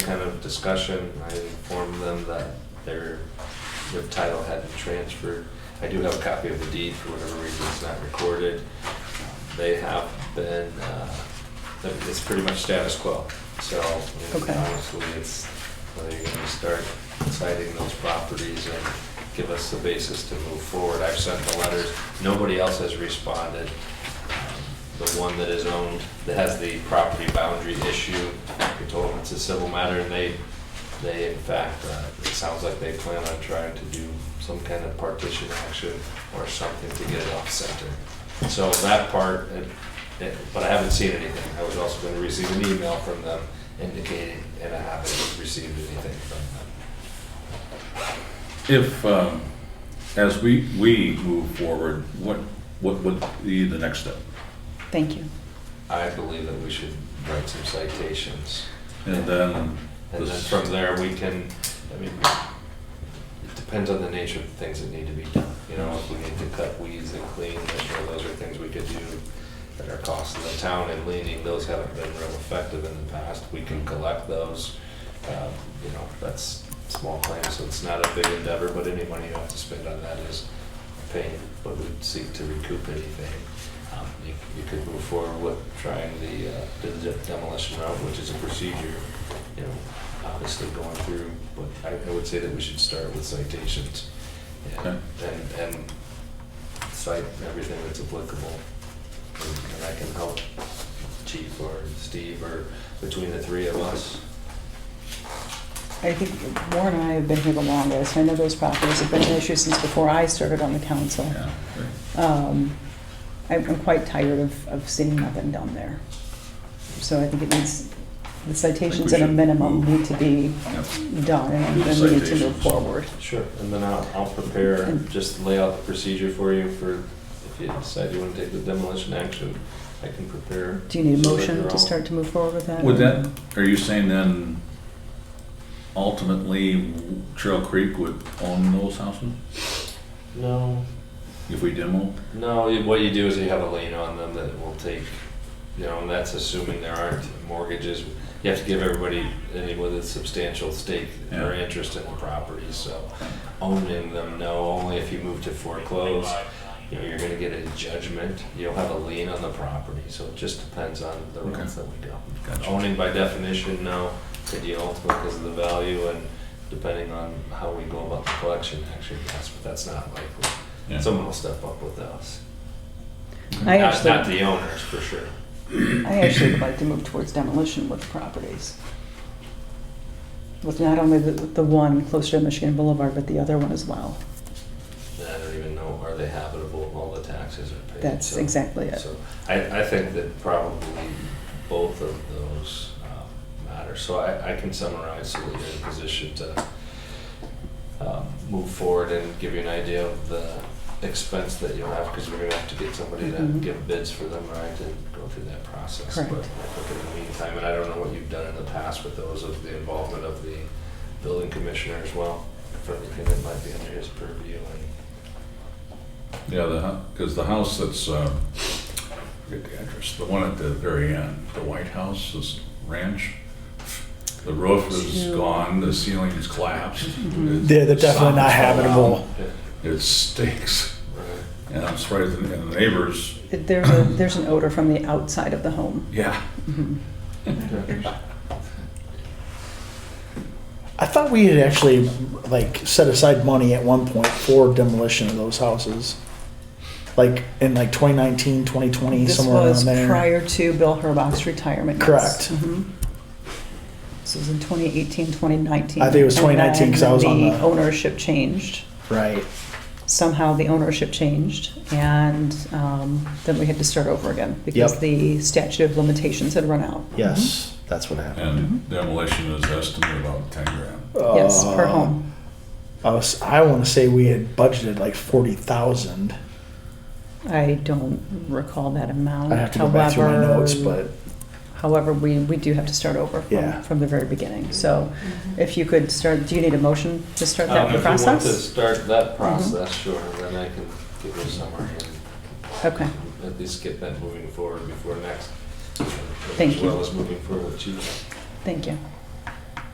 of discussion, I informed them that their, their title hadn't transferred. I do have a copy of the deed, for whatever reason it's not recorded. They have been, uh, it's pretty much status quo, so I mean, Okay. honestly, it's, whether you're gonna start citing those properties and give us the basis to move forward. I've sent the letters, nobody else has responded. The one that is owned, that has the property boundary issue, we told them it's a civil matter, and they, they in fact, uh, it sounds like they plan on trying to do some kind of partition action or something to get it off center. So that part, it- it- but I haven't seen anything. I was also going to receive an email from them indicating, and I haven't received anything from them. If, um, as we, we move forward, what, what would be the next step? Thank you. I believe that we should write some citations. And then, And then from there, we can, I mean, it depends on the nature of the things that need to be done. You know, if we need to cut weeds and clean, I'm sure those are things we could do that are costing the town and leaning. Those haven't been real effective in the past. We can collect those. Um, You know, that's small claims, so it's not a big endeavor, but any money you have to spend on that is pain, but we'd seek to recoup anything. Um, You you could move forward with trying the uh, the demolition route, which is a procedure you know, obviously going through, but I, I would say that we should start with citations. Okay. And, and, and cite everything that's applicable. And and I can help Chief or Steve or between the three of us. I think Warren and I have been here the longest. I know those properties have been an issue since before I served on the council. yeah, Um, I'm I'm quite tired of, of seeing nothing done there. So I think it needs, the citations at a should minimum move. need to be yeah. done, and Do the then we need to move citations. forward. Sure. And then I'll, I'll prepare, And- just lay out the procedure for you for, if you decide you want to take the demolition action, I can prepare. Do you need a so that motion you're to all- start to move forward with that? Would that, are you saying then ultimately Trail Creek would own those houses No, if we demo? No, you- what you do is you have a lien on them that will take, you know, and that's assuming there aren't mortgages. You have to give everybody, anyone with a substantial stake or Yeah. interest in the property, so owning them, no, only if you move to foreclose. You know, you're gonna get a judgment, you'll have a lien on the property, so it just depends on the Okay. routes that we go. Gotcha. Owning by definition, no, could you own because of the value and depending on how we go about the collection, actually, yes, but that's not likely. Yeah. Someone will step up with us. I Not- Not actually, the owners, for sure. I actually would like to move towards demolition with properties. With not only the, the one closer to Michigan Boulevard, but the other one as well. And I don't even know, are they habitable, all the taxes are paid? That's so- exactly it. So I, I think that probably both of those um, matter. So I, I can summarize so that you're in a position to um, move forward and give you an idea of the expense that you'll have, because we're gonna have to get somebody to Mhm. give bids for them, right, and go through that process. Correct. But I think in the meantime, and I don't know what you've done in the past with those, of the involvement of the building commissioner as well, for anything that might be under his purview and Yeah, the, because the house that's, uh, I forget the address, the one at the very end, the White House, this ranch. The roof is Two. gone, the ceiling is collapsed. Mhm. Yeah, they're definitely not Something's going on. habitable. It stinks, Right. and I'm surprised, the- and the neighbors, There's a, there's an odor from the outside of the home. yeah, Mhm. I thought we had actually like set aside money at one point for demolition of those houses. Like in like 2019, 2020, This somewhere was around there. prior to Bill Herbach's retirement. yes. Correct. Mhm. This was in 2018, 2019. I think it was And 2019 'cause I was on then the- Ownership changed. Right. Somehow the ownership changed and um, then we had to start over again because Yep. the statute of limitations had run out. Yes, Mm-hmm. that's what happened. and demolition is estimated about ten grand. Yes, per Uh, home. I, was- I want to say we had budgeted like 40,000. I don't recall that amount. I have to go back through my However, notes, but However, we, we do have to start over Yeah. from, from the very beginning. So if you could start, do you need a motion to start Mm-hmm. Um, that if you want to process? Mm-hmm. start that process, sure, then I can give you a summary and Okay. at least get that moving forward before next. Thank As you. well as moving forward with chief. Thank you.